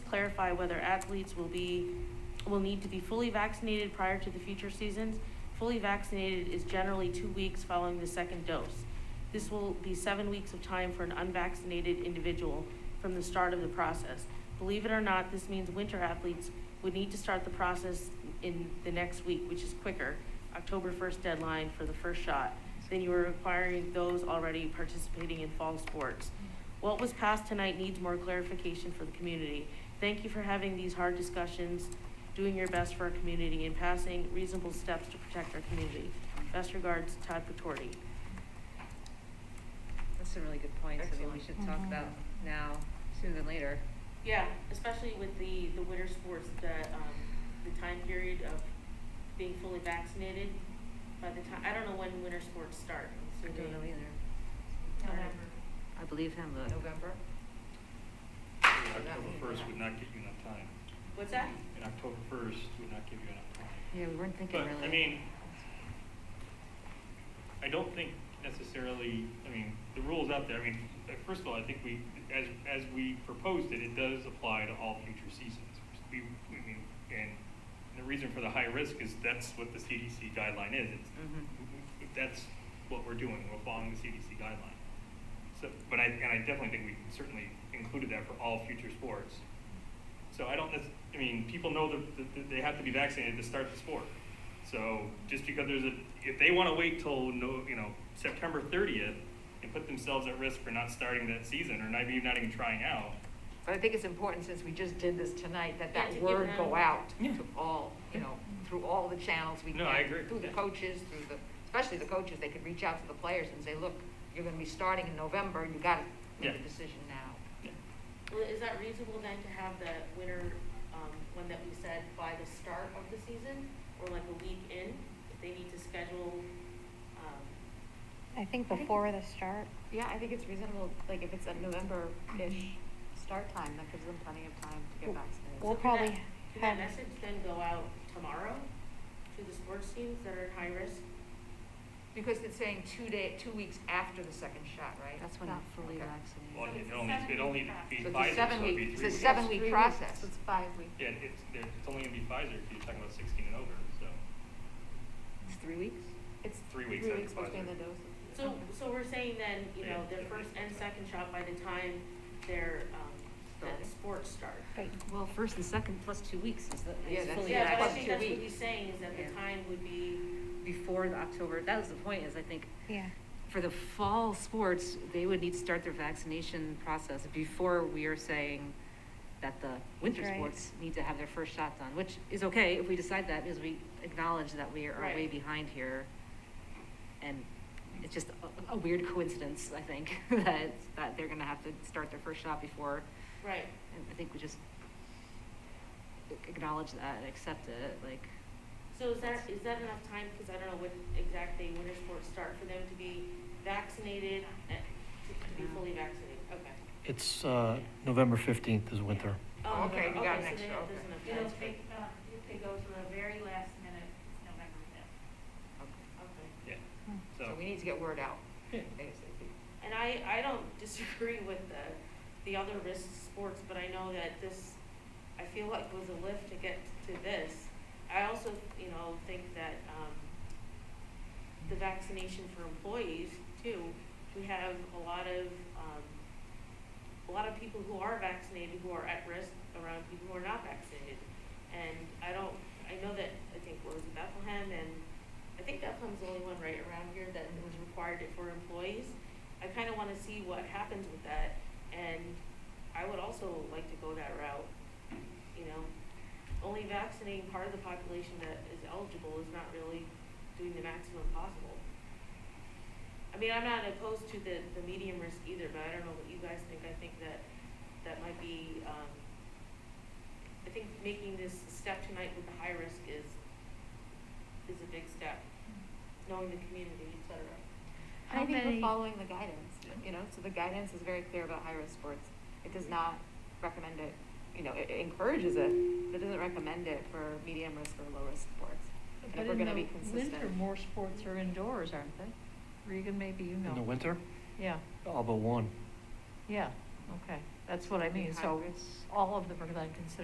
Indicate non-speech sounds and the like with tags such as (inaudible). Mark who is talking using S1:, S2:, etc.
S1: clarify whether athletes will be, will need to be fully vaccinated prior to the future seasons. Fully vaccinated is generally two weeks following the second dose. This will be seven weeks of time for an unvaccinated individual from the start of the process. Believe it or not, this means winter athletes would need to start the process in the next week, which is quicker, October first deadline for the first shot, Then you are requiring those already participating in fall sports. What was passed tonight needs more clarification for the community. Thank you for having these hard discussions, doing your best for our community, and passing reasonable steps to protect our community. Best regards, Todd Patorti.
S2: That's a really good point, something we
S1: Excellent.
S2: should talk
S3: Mm-hmm.
S2: about now, sooner than later.
S1: Yeah, especially with the, the winter sports, the, um, the time period of being fully vaccinated by the time, I don't know when winter sports start.
S2: I
S1: so they-
S2: don't know either.
S1: November.
S2: I believe him, look.
S3: November?
S4: October first would not give you enough time.
S1: What's that?
S4: And October first would not give you enough time.
S2: Yeah, we weren't thinking really.
S4: But, I mean, I don't think necessarily, I mean, the rule's out there, I mean, uh, first of all, I think we, as, as we proposed it, it does apply to all future seasons. We, I mean, and the reason for the high risk is that's what the CDC guideline is, it's
S3: Mm-hmm.
S2: Mhm.
S4: that's what we're doing, we're following the CDC guideline. So, but I, and I definitely think we certainly included that for all future sports. So I don't, nec- I mean, people know that, that- that they have to be vaccinated to start the sport. So just because there's a, if they wanna wait till no, you know, September thirtieth and put themselves at risk for not starting that season or not, even not even trying out,
S3: But I think it's important, since we just did this tonight, that
S1: Yeah, to
S3: that
S1: give
S3: word
S1: them-
S3: go out
S4: Yeah.
S3: to all, you know, through all the channels we can.
S4: No, I agree.
S3: Through the
S4: Yeah.
S3: coaches, through the, especially the coaches, they could reach out to the players and say, look, you're gonna be starting in November, you gotta make a
S4: Yeah.
S3: decision now.
S4: yeah.
S1: Well, is that reasonable then to have the winter, um, one that we said by the start of the season, or like a week in? If they need to schedule, um,
S5: I think before the start.
S6: Yeah, I think it's reasonable, like if it's a November-ish start time, that gives them plenty of time to get
S5: Well-
S6: vaccinated.
S5: well- We'll
S1: so can that-
S5: probably
S1: Can that
S5: have-
S1: message then go out tomorrow to the sports teams that are at high risk?
S3: Because it's saying two day, two weeks after the second shot, right?
S6: That's when you're fully
S3: Okay.
S4: Well,
S6: vaccinated.
S4: it only, it only be
S3: So it's a
S4: Pfizer, so it'd
S3: seven
S4: be
S3: week-
S4: three
S3: it's a
S4: weeks.
S3: seven week
S6: Three weeks,
S3: process.
S6: so It's five weeks.
S4: Yeah, it's, it's only gonna be Pfizer if you're talking about sixteen and over, so.
S3: It's three weeks?
S6: It's
S4: Three weeks
S6: Three
S4: after
S6: weeks between
S4: Pfizer.
S6: the doses.
S1: So, so we're saying then, you know, their
S4: Yeah.
S1: first and second shot by the time their, um, that
S3: Starting.
S1: sports start.
S5: But
S2: Well, first and second plus two weeks is the,
S3: Yeah,
S2: is
S3: that's-
S2: fully
S1: Yeah, but I
S3: Plus
S1: think
S2: vaccinated
S1: that's
S3: two
S1: what he's
S3: weeks.
S1: saying, is that the
S2: Yeah.
S1: time would be,
S2: before the October. That was the point, is I think
S5: yeah,
S2: for the fall sports, they would need to start their vaccination process before we are saying that the winter
S5: Right.
S2: sports need to have their first shot done, which is okay if we decide that, because we acknowledge that we are way
S1: Right.
S2: behind here. And it's just a, a weird coincidence, I think, (laughs) that, that they're gonna have to start their first shot before,
S1: right,
S2: and I think we just acknowledge that and accept it, like,
S1: so is that, is that enough time, cause I don't know what exactly winter sports start for them to be vaccinated, eh, to to be
S2: No.
S1: fully vaccinated, okay.
S7: It's uh, November 15th is winter.
S1: Oh,
S3: Okay,
S1: November.
S3: you got an
S1: so
S3: extra,
S1: then it
S3: okay.
S1: doesn't
S8: It'll
S1: affect-
S8: take, uh, if they go to the very last minute, it's November fifth.
S3: Okay.
S1: Okay.
S4: Yeah,
S5: Hmm.
S4: so.
S3: So we need to get word out
S4: Yeah.
S3: ASAP.
S1: And I, I don't (laughs) disagree with the, the other risk sports, but I know that this, I feel like was a lift to get to this. I also, you know, think that, um, the vaccination for employees too, we have a lot of, um, a lot of people who are vaccinated who are at risk around people who are not vaccinated. And I don't, I know that, I think, what was it, Bethlehem and, I think Bethlehem's the only one right around here that was required it for employees. I kind of want to see what happens with that, and I would also like to go that route, you know? Only vaccinating part of the population that is eligible is not really doing the maximum possible. I mean, I'm not opposed to the, the medium risk either, but I don't know what you guys think, I think that, that might be, um, I think making this step tonight with the high risk is, is a big step, knowing the community, et cetera.
S6: And
S5: How
S6: I think
S5: many-
S6: we're following the guidance,
S4: Yeah.
S6: you know, so the guidance is very clear about high-risk sports. It does not recommend it, you know, it it encourages it, but it doesn't recommend it for medium-risk or low-risk sports. And if we're gonna be consistent.
S9: Winter, more sports are indoors, aren't they? Regan, maybe you know.
S7: In the winter,
S9: Yeah,
S7: all but one.
S9: yeah, okay.
S1: That's what I mean, so
S10: Hybrids.
S1: all of them are then considered